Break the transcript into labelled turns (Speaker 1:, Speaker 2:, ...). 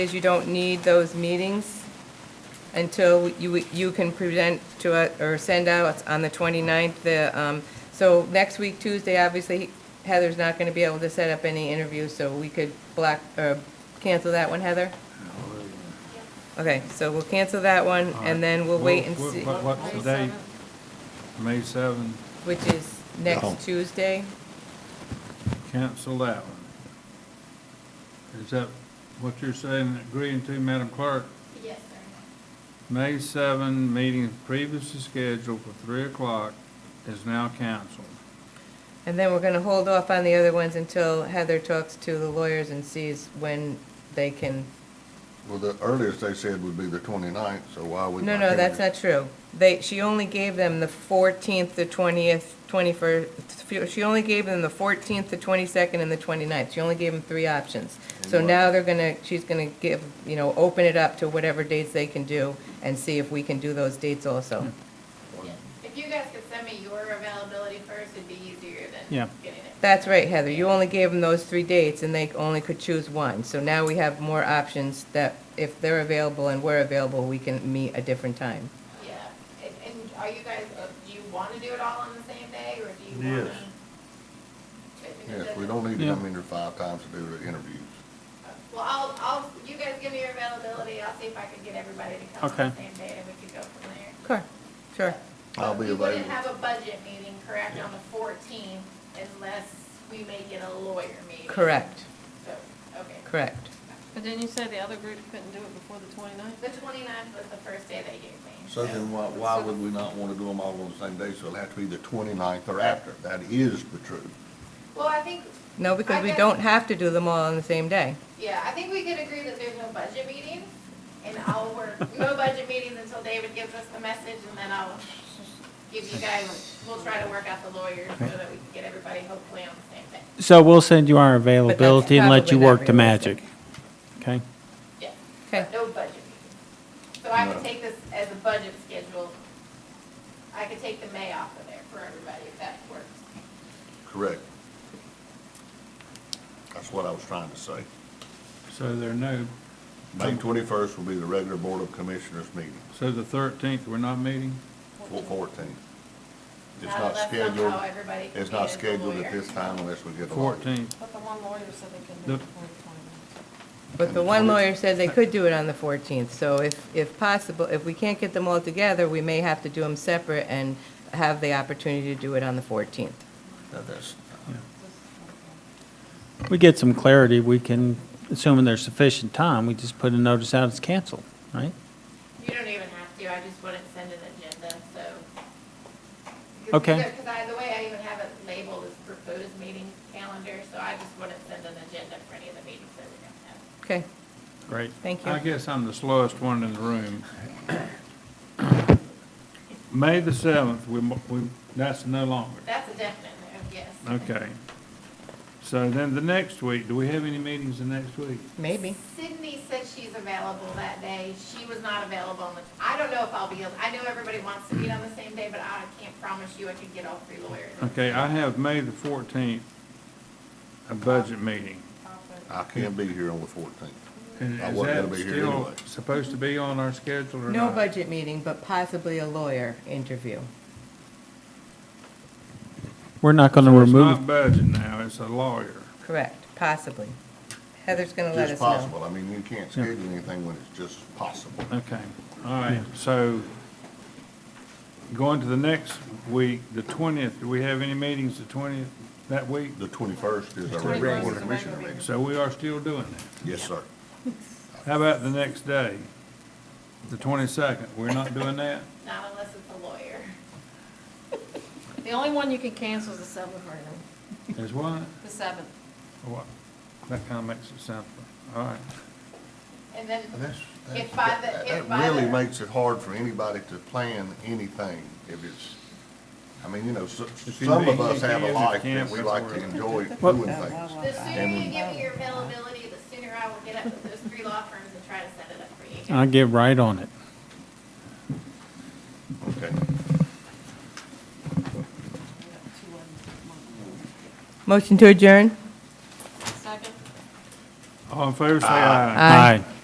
Speaker 1: is you don't need those meetings until you, you can present to us, or send out on the 29th, the, um, so next week, Tuesday, obviously Heather's not going to be able to set up any interviews, so we could block, or cancel that one, Heather? Okay, so we'll cancel that one, and then we'll wait and
Speaker 2: What-
Speaker 1: see,
Speaker 2: what- What's the date? May seventh,
Speaker 1: which is next Tuesday.
Speaker 2: cancel that one. Is that what you're saying, agreeing to, Madam Clerk?
Speaker 3: Yes, sir.
Speaker 2: May seven, meeting previously scheduled for three o'clock is now canceled.
Speaker 1: And then we're going to hold off on the other ones until Heather talks to the lawyers and sees when they can
Speaker 4: Well, the earliest they said would be the 29th, so why would?
Speaker 1: No, no, that's not true. They, she only gave them the 14th, the 20th, 21st, she only gave them the 14th, the 22nd, and the 29th. She only gave them three options. So
Speaker 4: And what-
Speaker 1: now they're gonna, she's gonna give, you know, open it up to whatever dates they can do and see if we can do those dates
Speaker 4: Hmm.
Speaker 1: also.
Speaker 3: Yes. If you guys could send me your availability first, it'd be easier
Speaker 2: Yeah.
Speaker 3: than getting it.
Speaker 1: That's right, Heather. You only gave them those three dates and they only could choose one. So now we have more options that if they're available and we're available, we can meet a different time.
Speaker 3: Yeah. And, and are you guys, uh, do you want to do it all on the same day, or do you
Speaker 4: Yes.
Speaker 3: want to?
Speaker 4: Yes, we don't need to
Speaker 2: Yeah.
Speaker 4: come in here five times to do the interviews.
Speaker 3: Well, I'll, I'll, you guys give me your availability, I'll see if I can get everybody to come on the
Speaker 2: Okay.
Speaker 3: same day, and we could go from there.
Speaker 1: Sure, sure.
Speaker 4: I'll be
Speaker 3: We wouldn't
Speaker 4: available.
Speaker 3: have a budget meeting, correct, on the fourteenth, unless we make it a lawyer meeting.
Speaker 1: Correct,
Speaker 3: So, okay.
Speaker 1: correct.
Speaker 5: But didn't you say the other group couldn't do it before the
Speaker 3: The
Speaker 5: 29th?
Speaker 3: 29th was the first day they gave me.
Speaker 4: So then why, why would we not want to do them all on the same day? So it'll have to be the 29th or after. That is the truth.
Speaker 3: Well, I think,
Speaker 1: No, because
Speaker 3: I
Speaker 1: we
Speaker 3: guess-
Speaker 1: don't have to do them all on the same day.
Speaker 3: yeah, I think we could agree that there's no budget meetings, and I'll work, no budget meetings until David gives us the message, and then I'll give you guys, we'll try to work out the lawyers so that we can get everybody hopefully on the same day.
Speaker 6: So we'll send you our availability and let you
Speaker 1: probably not
Speaker 6: work the magic. Okay?
Speaker 3: Yeah.
Speaker 1: Okay.
Speaker 3: But No budget meetings. So I
Speaker 4: No.
Speaker 3: could take this as a budget schedule. I could take the May off of there for everybody if that works.
Speaker 4: Correct. That's what I was trying to say.
Speaker 2: So there are no,
Speaker 4: May 21st will be the regular Board of Commissioners meeting,
Speaker 2: so the thirteenth, we're not meeting?
Speaker 4: four- 14. It's
Speaker 3: Not
Speaker 4: not
Speaker 3: unless somehow
Speaker 4: scheduled,
Speaker 3: everybody can
Speaker 4: it's
Speaker 3: be
Speaker 4: not
Speaker 3: as a
Speaker 4: scheduled
Speaker 3: lawyer.
Speaker 4: at this time unless we get a lawyer.
Speaker 2: Fourteenth,
Speaker 5: But the one lawyer said they couldn't do
Speaker 2: The-
Speaker 5: it before the
Speaker 1: But the one lawyer said they could do it on the 14th, so if, if possible, if we can't get them all together, we may have to do them separate and have the opportunity to do it on the 14th.
Speaker 4: That- That's,
Speaker 5: 29th.
Speaker 6: We get some clarity, we can, assuming there's sufficient time, we just put a notice out it's canceled, right?
Speaker 3: You don't even have to, I just wouldn't send an agenda, so. 'Cause-
Speaker 6: Okay.
Speaker 3: Because I, the way I even have it labeled is proposed meeting calendar, so I just wouldn't send an agenda for any of the meetings that we don't have.
Speaker 1: Okay,
Speaker 6: Great.
Speaker 1: thank
Speaker 2: I
Speaker 1: you.
Speaker 2: guess I'm the slowest one in the room. May the seventh, we, mo- we, that's no longer.
Speaker 3: That's a definite, no, yes.
Speaker 2: Okay. So then the next week, do we have any meetings the next week?
Speaker 1: Maybe.
Speaker 3: Sydney said she's available that day, she was not available, on the- I don't know if I'll be, able- I know everybody wants to meet on the same day, but I can't promise you I can get all three lawyers.
Speaker 2: Okay, I have May the fourteenth, a budget meeting.
Speaker 4: I can't be here on the 14th.
Speaker 2: And
Speaker 4: I
Speaker 2: is
Speaker 4: wasn't
Speaker 2: that
Speaker 4: gonna be here
Speaker 2: still
Speaker 4: anyway.
Speaker 2: supposed to be on our schedule or
Speaker 1: No
Speaker 2: not?
Speaker 1: budget meeting, but possibly a lawyer interview.
Speaker 6: We're not going to
Speaker 2: So It's
Speaker 6: remove,
Speaker 2: not budget now, it's a lawyer.
Speaker 1: Correct, possibly. Heather's going to let
Speaker 4: Just
Speaker 1: us know.
Speaker 4: possible. I mean, you can't schedule anything when it's just possible.
Speaker 2: Okay, all right, so going to the next week, the twentieth, do we have any meetings the twentieth that week?
Speaker 4: The 21st is our
Speaker 5: 21st
Speaker 4: regular
Speaker 5: is
Speaker 4: Board of
Speaker 5: the
Speaker 4: Commissioner
Speaker 5: regular
Speaker 4: meeting.
Speaker 2: So we are still doing that.
Speaker 4: Yes, sir.
Speaker 2: How about the next day, the twenty-second? We're not doing that?
Speaker 3: Not unless it's a lawyer.
Speaker 5: The only one you can cancel is the seventh, right?
Speaker 2: Is what?
Speaker 5: The seventh.
Speaker 2: What? That kind of makes it simple. All right.
Speaker 3: And then
Speaker 4: And that's- that's-
Speaker 3: If by the-
Speaker 4: that-
Speaker 3: if by
Speaker 4: That really
Speaker 3: the-
Speaker 4: makes it hard for anybody to plan anything if it's, I mean, you know, so-
Speaker 2: you
Speaker 4: some of
Speaker 2: need-
Speaker 4: us have
Speaker 2: if
Speaker 4: a
Speaker 2: you
Speaker 4: life
Speaker 2: can't,
Speaker 4: that we
Speaker 2: that's
Speaker 4: like
Speaker 2: where-
Speaker 4: to enjoy doing things.
Speaker 3: The sooner you
Speaker 4: And-
Speaker 3: give me your availability, the sooner I will get up with those three law firms and try to set it up for you.
Speaker 6: I'll get right on it.
Speaker 4: Okay.
Speaker 1: Motion to adjourn?
Speaker 5: Second?
Speaker 2: All in favor, say aye.
Speaker 6: Aye.